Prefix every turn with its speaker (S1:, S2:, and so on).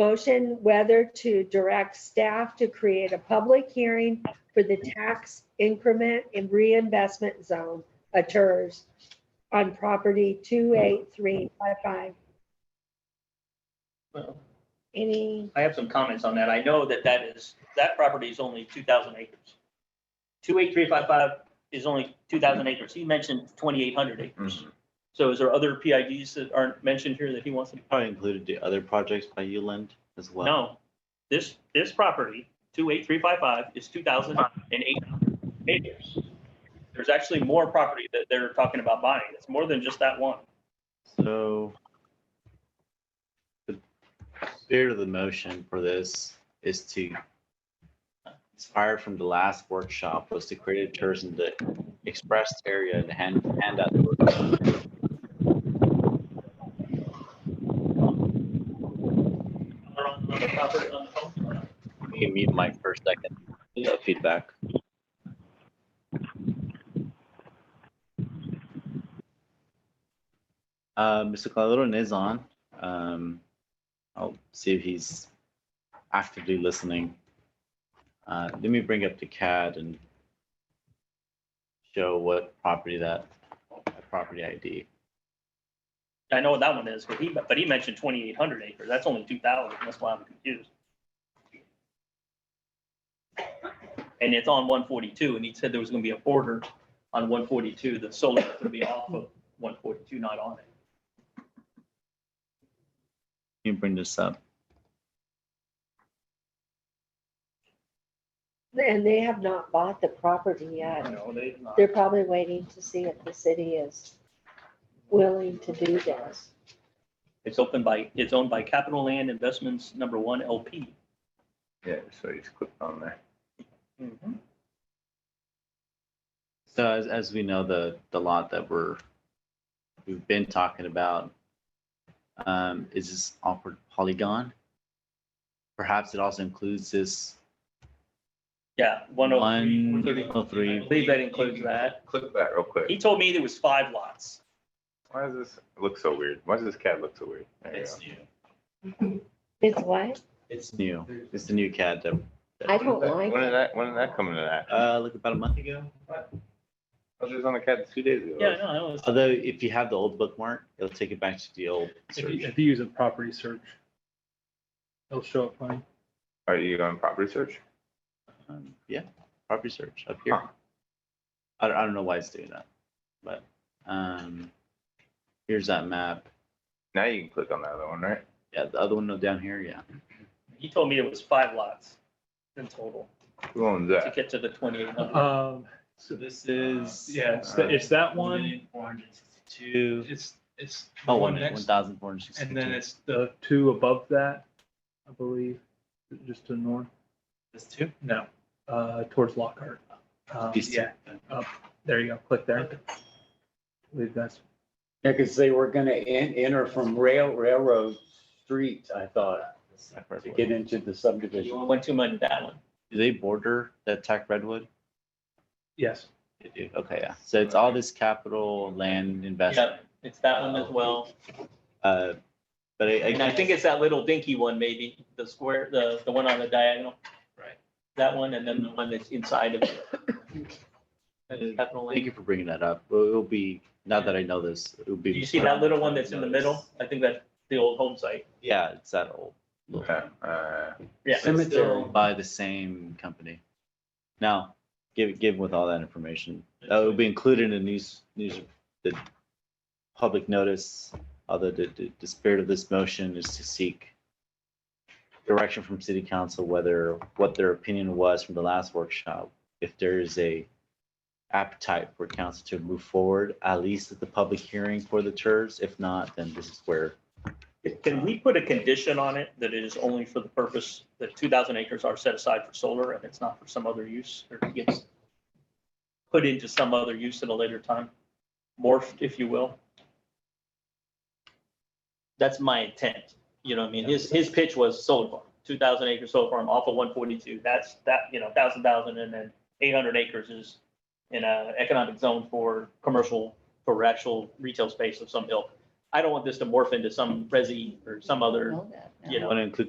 S1: motion whether to direct staff to create a public hearing for the tax increment and reinvestment zone, a TERS, on property 28355.
S2: Well,
S1: Any,
S2: I have some comments on that. I know that that is, that property is only two thousand acres. Two eight three five five is only two thousand acres. He mentioned twenty-eight hundred acres. So is there other PIDs that aren't mentioned here that he wants to?
S3: Probably included the other projects by Uland as well.
S2: No, this, this property, two eight three five five, is two thousand and eight acres. There's actually more property that they're talking about buying. It's more than just that one.
S3: So the spirit of the motion for this is to inspired from the last workshop was to create a tourism the expressed area and hand hand out. the workshop.
S2: They're on the property on the phone.
S3: Can You mute mic for a second. No feedback. Uh, Mr. Calderon is on. Um, I'll see if he's actively listening. Uh, let me bring up the CAD and show what property that, that property ID.
S2: I know what that one is, but he, but he mentioned twenty-eight hundred acres. That's only two thousand. That's why I'm confused. And it's on one forty-two, and he said there was gonna be a border on one forty-two. The solar is gonna be off of one forty-two, not on it.
S3: Let me bring this up.
S1: and they have not bought the property yet.
S2: No, they did not.
S1: They're probably waiting to see if the city is willing to do this.
S2: It's opened by, it's owned by Capital Land Investments Number One LP.
S4: Yeah, so he's clicked on there.
S2: Mm-hmm.
S3: So as, as we know, the, the lot that we're, we've been talking about, um, is this awkward polygon. Perhaps it also includes this
S2: Yeah, one oh three.
S3: one, oh
S2: I
S3: three,
S2: believe that includes that.
S4: Click that real quick.
S2: He told me there was five lots.
S4: Why does this look so weird? Why does this cat look so weird? There you
S2: It's
S4: go.
S2: new.
S1: It's what?
S3: it's new, it's the new CAD that. that-
S1: I don't
S4: When
S1: like
S4: did
S1: it.
S4: that, when did that come into that? I
S3: Uh, like about a month ago,
S4: was just on the cat two days ago.
S2: Yeah, no, that was,
S3: although if you have the old bookmark, it'll take it back to the old
S5: If you,
S3: search.
S5: if you use a property search, it'll show up fine.
S4: Are you on property search?
S3: Um, Yeah, property search up here.
S4: Huh.
S3: I don't, I don't know why it's doing that, but, um, here's that map.
S4: Now you can click on that other one, right?
S3: Yeah, the other one down here, yeah.
S2: he told me it was five lots in total
S4: Who owns
S2: to
S4: that?
S2: get to the twenty-eight hundred.
S5: Um,
S3: So this is.
S5: yeah, it's, the- it's that one,
S3: Four hundred sixty-two.
S5: it's, it's the
S3: Oh, one
S5: one
S3: minute, one
S5: next,
S3: thousand four hundred sixty-two.
S5: and then it's the two above that, I believe, just to the north,
S3: This two?
S5: no, uh, towards Lockhart. Um,
S3: These two?
S5: yeah, up, there you go, click there. I believe that's,
S6: Yeah, because they were gonna en- enter from rail, railroad street, I thought,
S3: Tack Redwood.
S6: to get into the subdivision.
S2: Went too much in that one.
S3: Do they border that Tack Redwood?
S5: yes,
S3: They do, okay, yeah. So it's all this capital land
S2: Yeah,
S3: investment.
S2: it's that one as well.
S3: Uh, but I,
S2: And I think it's that little dinky one maybe, the square, the, the one on the diagonal. Right. That one and then the one that's inside of it. That's Capital
S3: Thank
S2: Land.
S3: you for bringing that up. Well, It'll be, now that I know this, it'll be.
S2: Do you see that little one that's in the middle? I think that's the old home site.
S3: Yeah, it's that old. little-
S4: Yeah, uh,
S2: Yeah.
S6: Cemetery.
S3: By the same company. Now, give, give with all that information. Uh, It'll be included in the news, news, the public notice, although the, the- the spirit of this motion is to seek direction from city council whether, what their opinion was from the last workshop. If there is a appetite for council to move forward, at least at the public hearing for the TERS. If not, then this is where
S2: Can we put a condition on it that it is only for the purpose, that two thousand acres are set aside for solar and it's not for some other use or it gets put into some other use at a later time, morphed, if you will? That's my intent, you know, what I mean, his, his pitch was solar farm, two thousand acre solar farm off of one forty-two, that's that, you know, thousand, thousand, and then eight hundred acres is in a economic zone for commercial, for actual retail space of some ilk. I don't want this to morph into some resi or some other,
S1: Know that now.
S2: you know.
S3: I want to include